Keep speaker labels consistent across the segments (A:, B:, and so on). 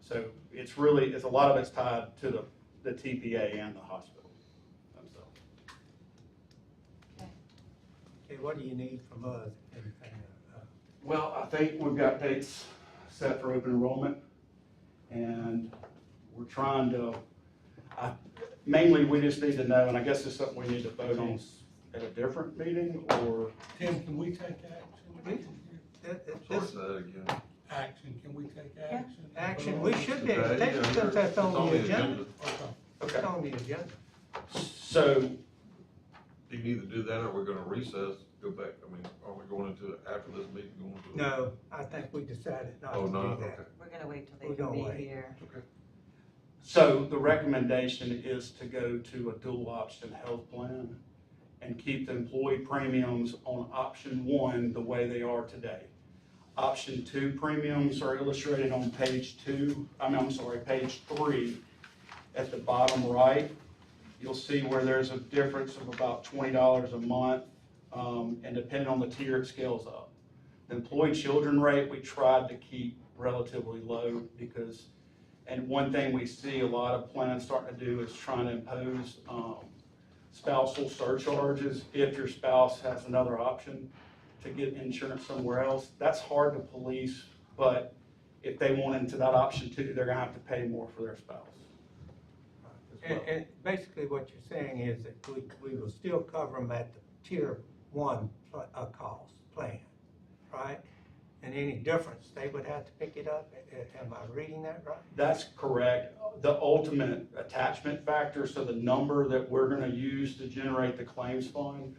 A: So it's really, it's a lot of it's tied to the, the TPA and the hospital themselves.
B: Okay, what do you need from us? Anything, uh,
A: Well, I think we've got dates set for open enrollment, and we're trying to, I, mainly, we just need to know, and I guess it's something we need to vote on at a different meeting, or,
C: Tim, can we take action?
B: that- that-
D: Sort
B: This
D: that again.
C: Action, can we take action?
B: action, we should be, able to
D: Today,
B: take it
D: yeah,
B: since that's
D: it's
B: on the agenda.
C: Okay.
B: It's
A: okay,
B: on the agenda.
A: so,
D: You can either do that or we're gonna recess, go back, I mean, are we going into, after this meeting, going to?
B: No, I think we decided not
D: Oh,
B: to
D: no,
B: do
D: okay.
B: that.
E: We're gonna wait till
B: We're
E: they
B: gonna
E: can
B: wait.
E: be here.
A: so the recommendation is to go to a dual option health plan and keep the employee premiums on option one the way they are today. Option two premiums are illustrated on page two, I mean, I'm sorry, page three. At the bottom right, you'll see where there's a difference of about twenty dollars a month, um, and depending on the tier, it scales up. The employee children rate, we tried to keep relatively low because, and one thing we see a lot of plans starting to do is trying to impose, um, spousal surcharges if your spouse has another option to get insurance somewhere else. That's hard to police, but if they want into that option too, they're gonna have to pay more for their spouse. as well.
B: And, and basically what you're saying is that we, we will still cover them at the tier one, pl- uh, cost plan, right? And any difference, they would have to pick it up, A- a- am I reading that right?
A: That's correct. The ultimate attachment factor, so the number that we're gonna use to generate the claims fund,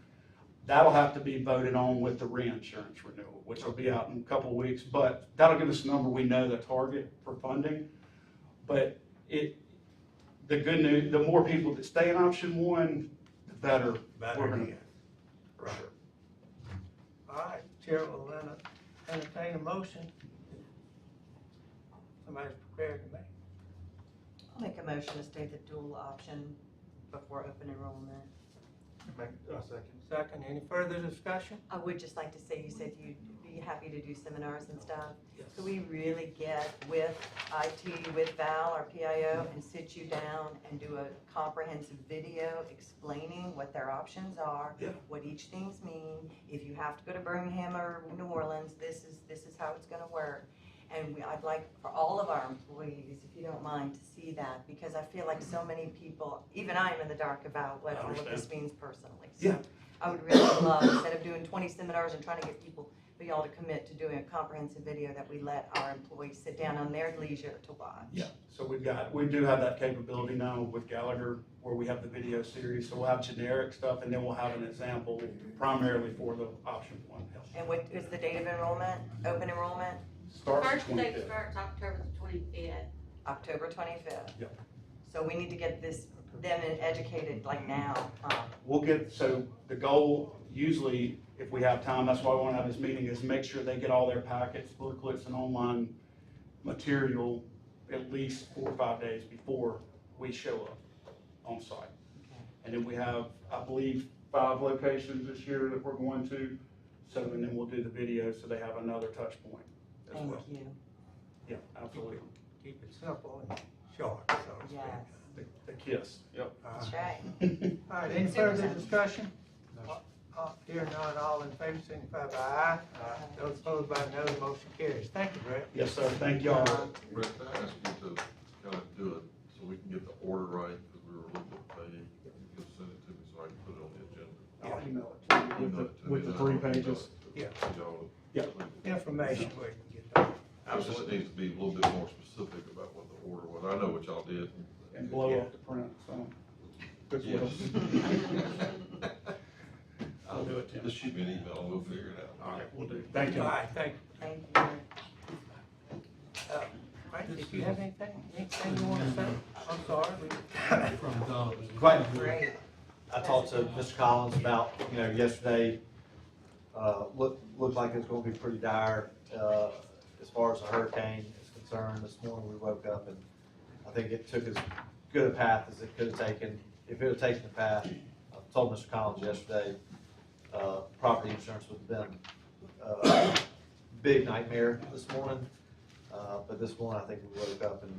A: that'll have to be voted on with the reinsurance renewal, which will be out in a couple of weeks, but that'll give us a number, we know the target for funding. But it, the good news, the more people that stay in option one, the better. we're
B: Better
A: gonna-
B: yet.
A: for sure.
B: All right, Chair will enter- entertain a motion. Somebody's prepared to make.
E: I'll make a motion to state the dual option before open enrollment.
B: Second, any further discussion?
E: I would just like to say, you said you'd be happy to do seminars and stuff.
B: Yes.
E: Could we really get with IT, with Val, our PIO, and sit you down and do a comprehensive video explaining what their options are?
A: Yeah.
E: What each things mean, if you have to go to Birmingham or New Orleans, this is, this is how it's gonna work. And we, I'd like for all of our employees, if you don't mind, to see that, because I feel like so many people, even I'm in the dark about what
A: I
E: all of
A: understand.
E: this means personally. So
A: Yeah.
E: I would really love, instead of doing twenty seminars and trying to get people, for y'all to commit to doing a comprehensive video that we let our employees sit down on their leisure to watch.
A: Yeah, so we've got, we do have that capability now with Gallagher, where we have the video series, so we'll have generic stuff, and then we'll have an example primarily for the option one health.
E: And what is the date of enrollment, open enrollment?
A: Starts at
F: First day
A: twenty-fifth.
F: starts October the twenty-fifth.
E: October twenty-fifth.
A: Yep.
E: So we need to get this, them educated like now, um,
A: We'll get, so the goal, usually, if we have time, that's why we wanna have this meeting, is make sure they get all their packets, booklets, and online material at least four or five days before we show up on site. And then we have, I believe, five locations this year that we're going to, so, and then we'll do the video, so they have another touch point as
E: thank
A: well.
E: you.
A: Yeah, absolutely.
B: Keep it simple and short, so to speak.
E: Yes,
A: The the kiss, yep.
B: All right.
E: that's right.
B: All right, any further discussion? Uh, Here none, all in favor, signify by aye. Those opposed by no, the motion carries. Thank you, Brett. Uh,
A: Yes, sir, thank y'all.
D: Rick, I ask you to kind of do it so we can get the order right, because we were a little bit vague. You'll send it to me so I can put it on the agenda.
A: I'll email it to you.
D: Email it to me,
A: with the
D: then I'll
A: three
D: email it
A: pages.
D: to y'all.
A: Yeah.
B: Information we can get.
D: It just needs to be a little bit more specific about what the order was. I know what y'all did.
A: And blow up the print, so. That's what
D: Yes.
A: I'll do it, Tim.
D: Just shoot me an email and we'll figure it out.
A: All right, we'll do. Thank
B: All
A: you.
B: right, thank
E: Thank you.
B: you. Uh, Brett, did you have anything, anything you want to say? I'm sorry. we-
C: From Donovan.
G: Quite
E: Great.
G: I talked to Mr. Collins about, you know, yesterday, uh, looked, looked like it's gonna be pretty dire, uh, as far as the hurricane is concerned. This morning we woke up and I think it took as good a path as it could have taken. If it had taken the path, I told Mr. Collins yesterday, uh, property insurance would have been a big nightmare this Uh, morning. Uh, but this morning I think we woke up and